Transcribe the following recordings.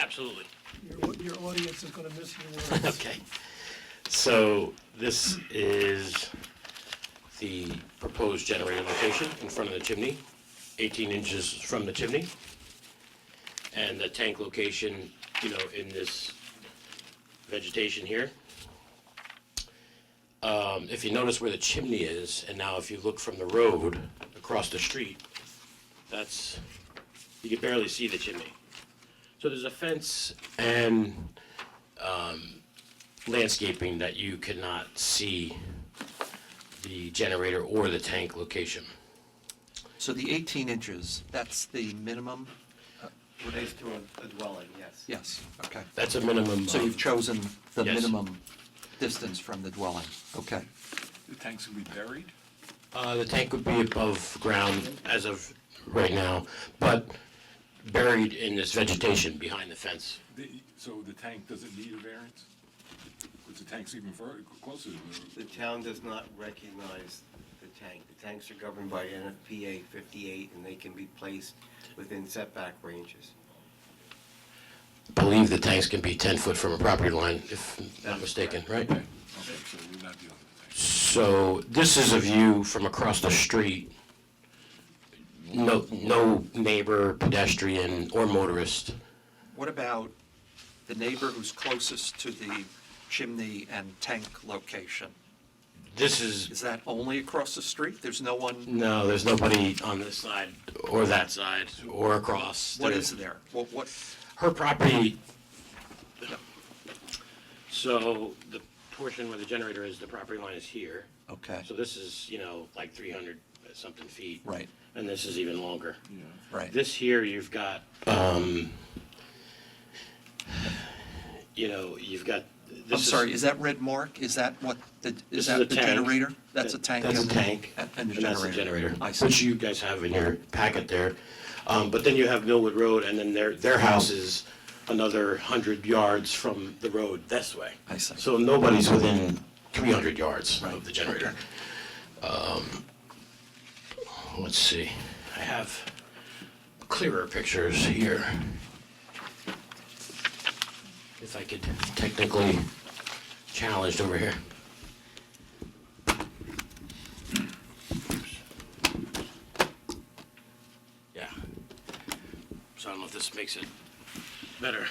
Absolutely. Your, au- your audience is gonna miss your words. Okay. So this is the proposed generator location in front of the chimney, 18 inches from the chimney. And the tank location, you know, in this vegetation here. Um, If you notice where the chimney is, and now if you look from the road across the street, that's, you can barely see the chimney. So there's a fence and landscaping that you cannot see the generator or the tank location. So the 18 inches, that's the minimum? Relates to a a dwelling, yes. Yes, okay. That's a minimum. So of- you've chosen the Um, Yes. minimum distance from the dwelling, okay. The tanks will be buried? Uh, the tank would be above ground as of right now, but buried in this vegetation behind the fence. The- So the tank doesn't need a variance? Because the tank's even further, closer to the The town does not recognize the tank. The tanks are governed by NFPA 58, and they can be placed within setback ranges. Believe the tanks can be ten foot from a property line, if not mistaken, right? Okay, so we're not dealing with the tank. So this is a view from across the street. No, no neighbor, pedestrian, or motorist. What about the neighbor who's closest to the chimney and tank location? This is Is that only across the street? There's no one, No, there's nobody on this side or that side or across. what There- is there? What, what, Her property. So the portion where the generator is, the property line is here. okay, So this is, you know, like three hundred something feet. Right. And this is even longer. right. This here, you've got, um, you know, you've got. I'm this sorry, is that red mark? Is that what, the This is that is a the tank. generator? That's a That- tank? That's a and- tank. and- And a that's generator? the generator, I which see, you guys have in your packet there. Um, But then you have Millwood Road, and then their, their house is another 100 yards from the road this way. I see. So nobody's within 300 yards of Right. the generator. Um, Let's see, I have clearer pictures here. If I could technically challenged over here. Yeah. So I don't know if this makes it better.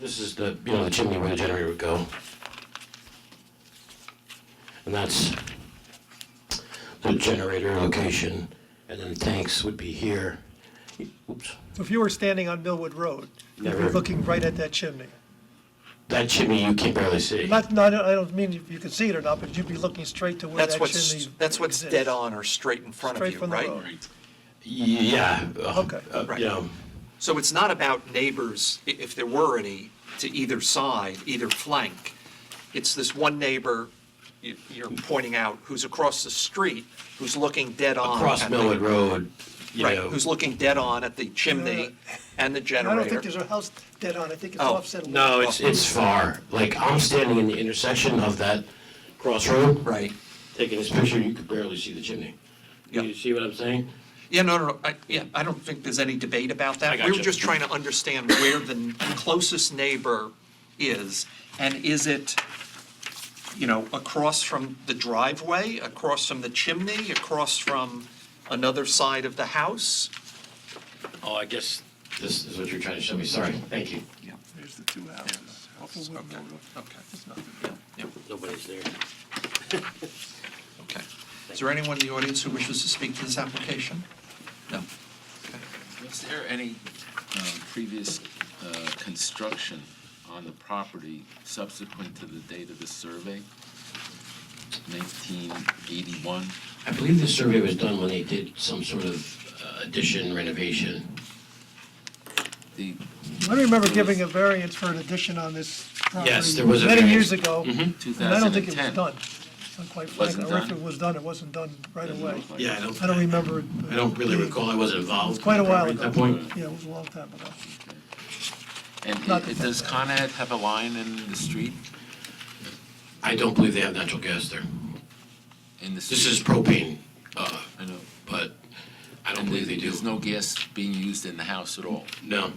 This is the, you know, the chimney where the generator would go. And that's the generator location, and then the tanks would be here. Oops. So if you were standing on Millwood Road, you'd be Never. looking right at that chimney. That chimney you can barely see. Not, no, I don't- I don't mean if you can see it or not, but you'd be looking straight to where that that's chimney what's, exists. that's what's dead on or straight in front of Straight you, from the right? road. Yeah. uh, Okay, uh, right. You know, So it's not about neighbors, i- if there were any, to either side, either flank. It's this one neighbor you- you're pointing out who's across the street, who's looking dead on. across at the- Millwood Road, you Right, know. who's looking dead on at the chimney and the And generator. Uh, I don't think there's a house dead on, I think it's Oh, offset. a little. No, it's, it's far. Like, I'm standing in the intersection of that crossroad, Right. taking this picture, you could barely see the chimney. You Yeah. see what I'm saying? Yeah, no, no, no, I, yeah, I don't think there's any debate about that. I got We were you. just trying to understand where the n- closest neighbor is, and is it, you know, across from the driveway, across from the chimney, across from another side of the house? Oh, I guess this is what you're trying to show me, sorry, thank you. Yeah, There's the two houses. Off of Woodville Road. okay, yeah, Nobody's there. okay. Is there anyone in the audience who wishes to speak to this application? No? Was there any um, previous uh, construction on the property subsequent to the date of the survey? 1981? I believe the survey was done when they did some sort of uh, addition renovation. The, I remember giving a variance for an addition on this Yes, property there was a many variance. years ago. And I don't think it was 2010. done, So quite frankly, Wasn't or if done? it was done, it wasn't done right Doesn't away. look like Yeah, I I don't, don't remember. it, I don't really but- recall, I wasn't involved. Quite a while at ago. that point. Yeah, it was a long time ago. And Not it- the- does Con Ed have a line in the street? I don't believe they have natural gas there. In the This is street? propane, uh, I know. but I don't And believe they do. There's no gas being used in the house at all? No.